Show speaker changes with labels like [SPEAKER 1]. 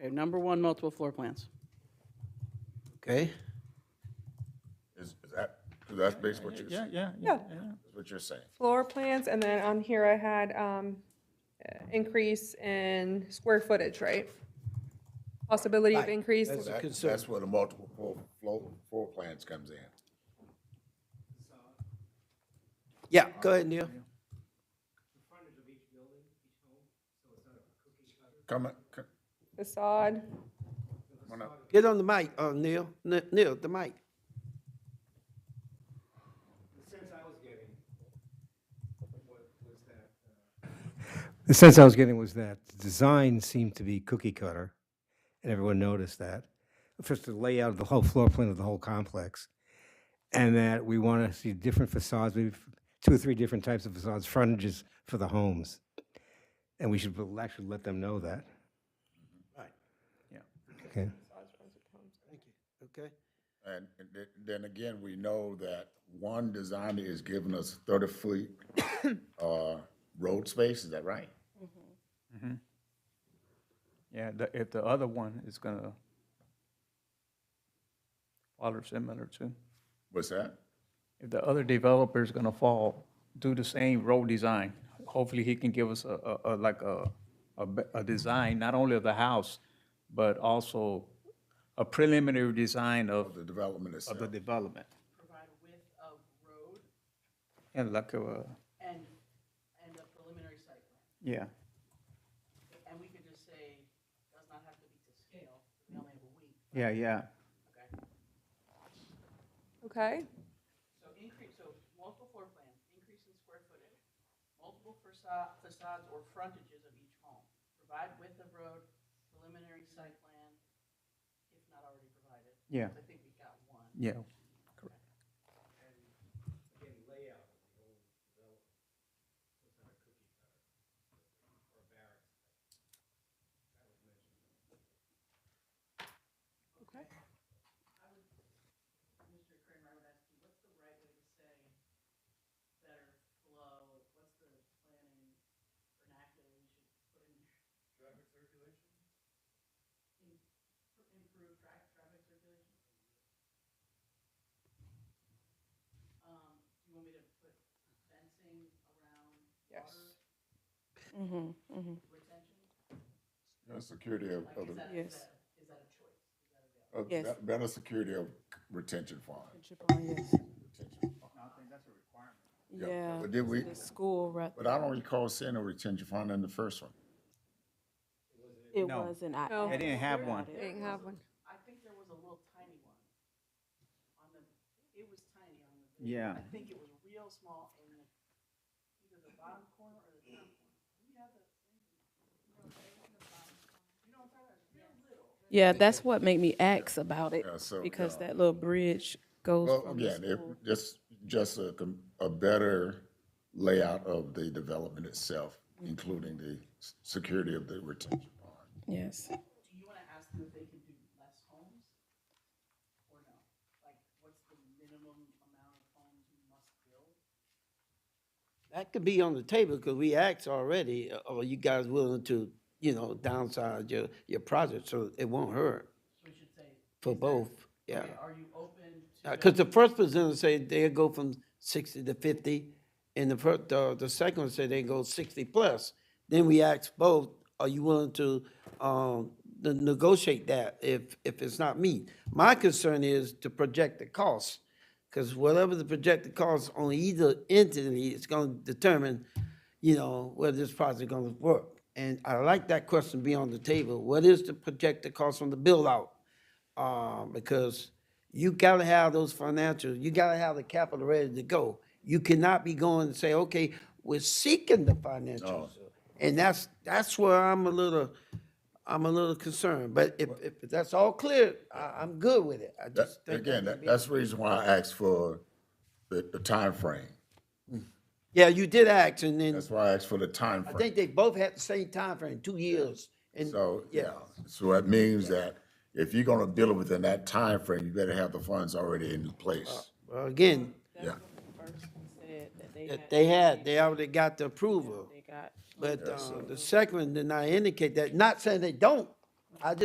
[SPEAKER 1] Okay, number one, multiple floor plans.
[SPEAKER 2] Okay?
[SPEAKER 3] Is, is that, 'cause that's basically what you're,
[SPEAKER 4] Yeah,
[SPEAKER 3] that's
[SPEAKER 4] yeah, yeah, yeah.
[SPEAKER 3] what you're saying.
[SPEAKER 5] floor plans, and then on here I had, um, uh, increase in square footage, right? Possibility of increase,
[SPEAKER 3] That-
[SPEAKER 2] concern.
[SPEAKER 3] That's where the multiple floor, floor, floor plans comes in.
[SPEAKER 2] Yeah, go ahead, Neil.
[SPEAKER 3] Come, on, c-
[SPEAKER 5] facade,
[SPEAKER 3] come on up.
[SPEAKER 2] Get on the mic, uh, Neil, N- Neil, the mic.
[SPEAKER 6] The sense I was getting was that the design seemed to be cookie cutter, and everyone noticed that. First, the layout of the whole floor plan of the whole complex, and that we want to see different facades, maybe f- two or three different types of facades, frontages for the homes. And we should l- actually let them know that.
[SPEAKER 4] Yeah.
[SPEAKER 6] Okay.
[SPEAKER 2] Okay?
[SPEAKER 3] And th- then again, we know that one designer is giving us thirty foot, uh, road space, is that right?
[SPEAKER 4] Yeah, the, if the other one is gonna follow similar to,
[SPEAKER 3] What's that?
[SPEAKER 4] if the other developer is gonna fall, do the same road design. Hopefully, he can give us a, a, a- like a, a, be- a design, not only of the house, but also a preliminary design of,
[SPEAKER 3] The development
[SPEAKER 4] of the
[SPEAKER 3] itself.
[SPEAKER 4] development.
[SPEAKER 1] Provide width of road
[SPEAKER 4] And like uh, a,
[SPEAKER 1] and, and a preliminary site plan.
[SPEAKER 4] yeah,
[SPEAKER 1] And we could just say, does not have to be to scale, we only have a week.
[SPEAKER 4] yeah, yeah.
[SPEAKER 5] okay?
[SPEAKER 1] So increase, so multiple floor plans, increase in square footage, multiple facade, facades or frontages of each home. Provide width of road, preliminary site plan, if not already provided.
[SPEAKER 4] Yeah.
[SPEAKER 1] I think we got one.
[SPEAKER 4] Yeah.
[SPEAKER 5] Okay.
[SPEAKER 1] Mr. Kramer, I would ask you, what's the right way to say better flow, what's the planning vernacular we should put in? Traffic circulation? Improve tra- traffic circulation? Um, do you want me to put fencing around
[SPEAKER 5] Yes.
[SPEAKER 1] water retention?
[SPEAKER 3] The Security of, of the,
[SPEAKER 7] Yes.
[SPEAKER 3] of
[SPEAKER 7] Yes.
[SPEAKER 3] bet- better security of retention fund.
[SPEAKER 7] yes.
[SPEAKER 3] retention fund. Yeah,
[SPEAKER 7] Yeah.
[SPEAKER 3] but did we-
[SPEAKER 7] The school, right?
[SPEAKER 3] But I don't recall seeing a retention fund in the first one.
[SPEAKER 7] It
[SPEAKER 4] No.
[SPEAKER 7] wasn't. I
[SPEAKER 5] No. They
[SPEAKER 4] didn't
[SPEAKER 7] asked
[SPEAKER 4] have
[SPEAKER 7] about
[SPEAKER 4] one.
[SPEAKER 7] it.
[SPEAKER 5] Didn't have one.
[SPEAKER 1] I think there was a little tiny one on the, it was tiny on the video.
[SPEAKER 4] Yeah.
[SPEAKER 1] I think it was real small in the, either the bottom corner or the top corner. We have the,
[SPEAKER 7] Yeah, that's what made me ask about it
[SPEAKER 3] Yeah, so,
[SPEAKER 7] because
[SPEAKER 3] yeah.
[SPEAKER 7] that little bridge goes
[SPEAKER 3] Well,
[SPEAKER 7] from the
[SPEAKER 3] again, if,
[SPEAKER 7] school.
[SPEAKER 3] just, just a, com- a better layout of the development itself,
[SPEAKER 2] Mm-hmm.
[SPEAKER 3] including the s- security of the retention pond.
[SPEAKER 7] Yes.
[SPEAKER 1] do you wanna ask them if they can do less homes? Or no? Like, what's the minimum amount of homes you must build?
[SPEAKER 2] That could be on the table, because we asked already, uh, are you guys willing to, you know, downsize your, your project, so it won't hurt
[SPEAKER 1] So we should say,
[SPEAKER 2] for both, yeah.
[SPEAKER 1] okay, are you open to?
[SPEAKER 2] Because Uh, the first presenter said they'll go from sixty to fifty, and the first, the, the second one said they go sixty plus. Then we asked both, are you willing to, um, to negotiate that if, if it's not me? My concern is to project the cost, because whatever the projected cost on either entity is gonna determine, you know, whether this project gonna work. And I like that question be on the table, what is the projected cost on the build-out? uh, because you gotta have those financials, you gotta have the capital ready to go. You cannot be going and say, okay, we're seeking the financials. And that's, that's where I'm a little, I'm a little concerned, but if, if that's all clear, I, I'm good with it. I
[SPEAKER 3] That,
[SPEAKER 2] just think
[SPEAKER 3] again,
[SPEAKER 2] that-
[SPEAKER 3] that, that's the reason why I asked for the, the timeframe.
[SPEAKER 2] Yeah, you did act, and then,
[SPEAKER 3] That's why I asked for the
[SPEAKER 2] I
[SPEAKER 3] timeframe.
[SPEAKER 2] think they both had the same time frame, two years. And,
[SPEAKER 3] So, yeah, so that means that if you're gonna build it within that time frame, you better have the funds already in
[SPEAKER 2] Uh,
[SPEAKER 3] place.
[SPEAKER 2] well, again,
[SPEAKER 3] Yeah,
[SPEAKER 7] First one said that they
[SPEAKER 2] that
[SPEAKER 7] had-
[SPEAKER 2] they had, they already got the approval, um,
[SPEAKER 7] They got
[SPEAKER 2] but, uh, the second one did not indicate that, not saying they don't. I just